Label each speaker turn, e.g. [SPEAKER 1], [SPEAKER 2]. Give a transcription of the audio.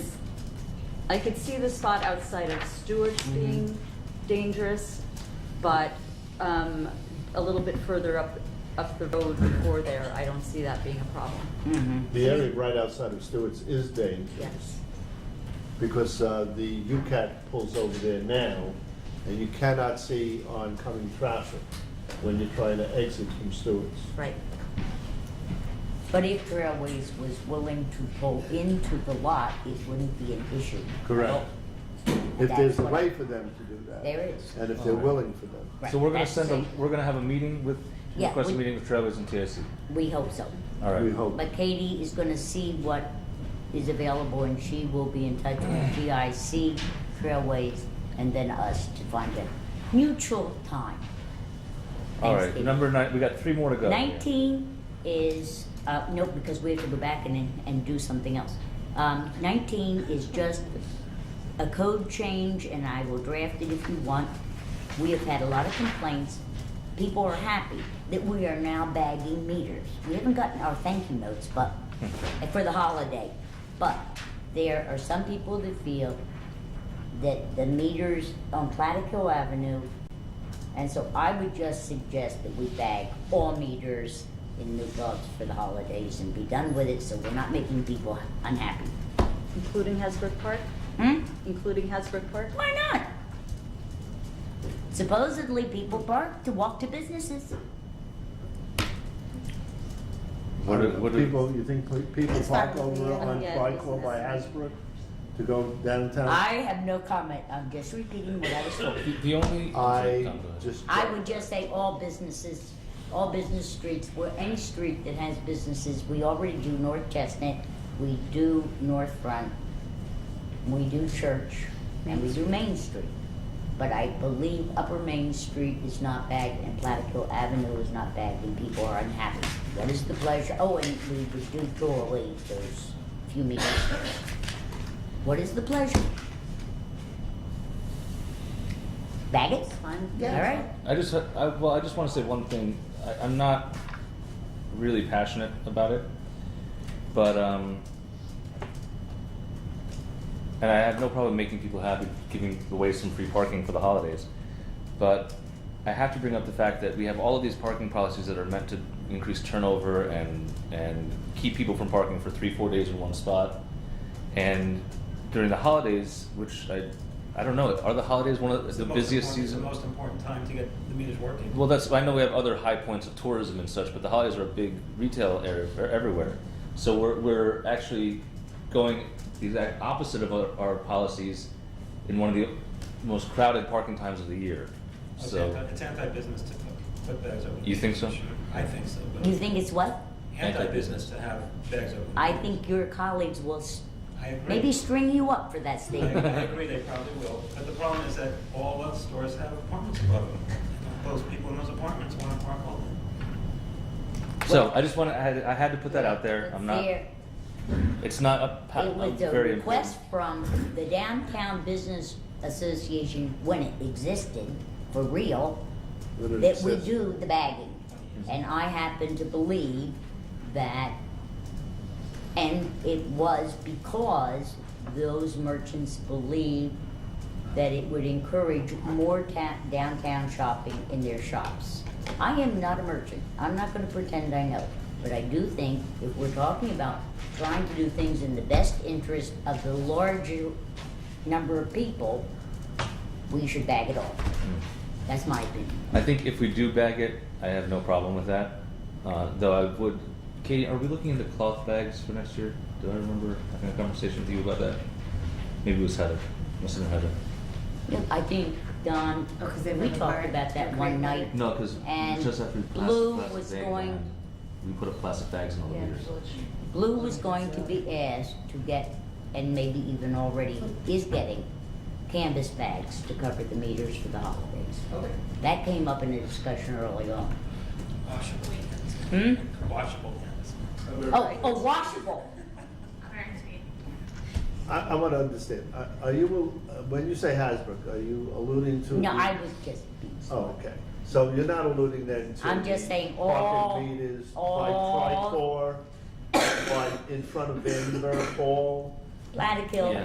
[SPEAKER 1] I could see the spot outside of Stewart's being dangerous, but, um, a little bit further up, up the road before there, I don't see that being a problem,
[SPEAKER 2] The area right outside of Stewart's is dangerous.
[SPEAKER 1] yes.
[SPEAKER 2] Because uh, the UCAT pulls over there now, and you cannot see oncoming traffic when you're trying to exit from Stewart's.
[SPEAKER 1] Right,
[SPEAKER 3] But if Railways was willing to go into the lot, it wouldn't be an issue.
[SPEAKER 2] Correct. If there's a way for them to do that.
[SPEAKER 3] There is.
[SPEAKER 2] And if they're willing for them.
[SPEAKER 3] Right,
[SPEAKER 4] So we're gonna
[SPEAKER 3] that's
[SPEAKER 4] send a,
[SPEAKER 3] it.
[SPEAKER 4] we're gonna have a meeting with,
[SPEAKER 3] Yeah,
[SPEAKER 4] request a
[SPEAKER 3] we-
[SPEAKER 4] meeting with Trailways and TIC.
[SPEAKER 3] We hope so.
[SPEAKER 4] All right.
[SPEAKER 2] We hope.
[SPEAKER 3] But Katie is gonna see what is available and she will be in touch with GIC, Trailways, and then us to find a mutual time.
[SPEAKER 4] All right,
[SPEAKER 3] Thanksgiving.
[SPEAKER 4] number nine, we got three more to go.
[SPEAKER 3] Nineteen is, uh, nope, because we have to go back and, and do something else. Um, nineteen is just a code change, and I will draft it if you want. We have had a lot of complaints. People are happy that we are now bagging meters. We haven't gotten our thank you notes, but, for the holiday. But there are some people that feel that the meters on Platicille Avenue and so I would just suggest that we bag all meters in New Dogs for the holidays and be done with it, so we're not making people unhappy.
[SPEAKER 1] including Hasbrook Park,
[SPEAKER 3] Hmm?
[SPEAKER 1] including Hasbrook Park?
[SPEAKER 3] Why not? Supposedly, people bark to walk to businesses.
[SPEAKER 4] What do- what do-
[SPEAKER 2] People, you think pl- people
[SPEAKER 3] It's
[SPEAKER 2] park
[SPEAKER 3] fine.
[SPEAKER 2] over on
[SPEAKER 1] Yeah,
[SPEAKER 2] Tricor by
[SPEAKER 1] business.
[SPEAKER 2] Hasbrook to go downtown?
[SPEAKER 3] I have no comment, I'm just repeating what I was told.
[SPEAKER 4] The, the only. sorry,
[SPEAKER 2] I
[SPEAKER 4] Tom, go ahead.
[SPEAKER 2] just.
[SPEAKER 3] I would just say all businesses, all business streets, where any street that has businesses, we already do North Chestnut, we do North Front, we do Church, and we do Main Street. But I believe Upper Main Street is not bagged and Plattekill Avenue is not bagged and people are unhappy. What is the pleasure, oh, and we would do Doorway, those few meters. What is the pleasure? Bag it?
[SPEAKER 1] Fine.
[SPEAKER 3] All right.
[SPEAKER 4] I just, I, well, I just wanna say one thing, I, I'm not really passionate about it, but, um, and I have no problem making people happy, giving away some free parking for the holidays, but I have to bring up the fact that we have all of these parking policies that are meant to increase turnover and, and keep people from parking for three, four days in one spot. And during the holidays, which I, I don't know, are the holidays one of
[SPEAKER 5] It's
[SPEAKER 4] the
[SPEAKER 5] most
[SPEAKER 4] busiest
[SPEAKER 5] important-
[SPEAKER 4] season?
[SPEAKER 5] The most important time to get the meters working.
[SPEAKER 4] Well, that's I know we have other high points of tourism and such, but the holidays are a big retail area for everywhere. So we're we're actually going the exact opposite of our, our policies in one of the most crowded parking times of the year.
[SPEAKER 5] It's
[SPEAKER 4] So
[SPEAKER 5] anti- It's anti-business to put- put bags over.
[SPEAKER 4] You think so?
[SPEAKER 5] I think so, but.
[SPEAKER 3] You think it's what?
[SPEAKER 5] Anti-business to have bags over.
[SPEAKER 3] I think your colleagues will s-
[SPEAKER 5] I agree.
[SPEAKER 3] maybe string you up for that
[SPEAKER 5] I
[SPEAKER 3] statement.
[SPEAKER 5] I agree, they probably will, but the problem is that all of the stores have apartments above them. Those people in those apartments want to park all day.
[SPEAKER 4] so I just want to I had, I had to put that out there. I'm not.
[SPEAKER 3] There-
[SPEAKER 4] It's not a, pa-
[SPEAKER 3] It
[SPEAKER 4] a
[SPEAKER 3] was a
[SPEAKER 4] very
[SPEAKER 3] request from the Downtown Business Association when it existed, for real,
[SPEAKER 2] Let it
[SPEAKER 3] that we
[SPEAKER 2] exist.
[SPEAKER 3] do the bagging. And I happen to believe that, and it was because those merchants believed that it would encourage more ta- downtown shopping in their shops. I am not a merchant, I'm not gonna pretend I know, but I do think if we're talking about trying to do things in the best interest of the larger number of people, we should bag it all.
[SPEAKER 4] Mm.
[SPEAKER 3] That's my opinion.
[SPEAKER 4] I think if we do bag it, I have no problem with that. Uh, though I would, Katie, are we looking into cloth bags for next year? Do I remember having a conversation with you about that? Maybe it was Heather. Must have been Heather.
[SPEAKER 3] Yeah, I think, Don,
[SPEAKER 6] Oh, 'cause they
[SPEAKER 3] we
[SPEAKER 6] wouldn't
[SPEAKER 3] talked
[SPEAKER 6] hire-
[SPEAKER 3] about that
[SPEAKER 6] they're
[SPEAKER 3] one
[SPEAKER 6] great.
[SPEAKER 3] night.
[SPEAKER 4] No, because
[SPEAKER 3] And
[SPEAKER 4] just after plastic,
[SPEAKER 3] blue
[SPEAKER 4] plastic
[SPEAKER 3] was
[SPEAKER 4] bag
[SPEAKER 3] going-
[SPEAKER 4] ban, we put up plastic bags in all the beers.
[SPEAKER 3] Blue was going to be asked to get, and maybe even already is getting, canvas bags to cover the meters for the holidays.
[SPEAKER 6] Okay.
[SPEAKER 3] That came up in a discussion early on.
[SPEAKER 5] Washable.
[SPEAKER 3] Hmm?
[SPEAKER 5] Washable.
[SPEAKER 3] Oh, oh, washable.
[SPEAKER 2] I, I want to understand, Are- are you, uh, when you say Hasbrook, are you alluding to?
[SPEAKER 3] No,
[SPEAKER 2] the-
[SPEAKER 3] I was just being silly.
[SPEAKER 2] Oh, okay, so you're not alluding then to?
[SPEAKER 3] I'm just saying all-
[SPEAKER 2] Parking meters by
[SPEAKER 3] all-
[SPEAKER 2] Tricor, by in front of Vandenberg Hall,
[SPEAKER 3] Plattekill
[SPEAKER 4] Yeah.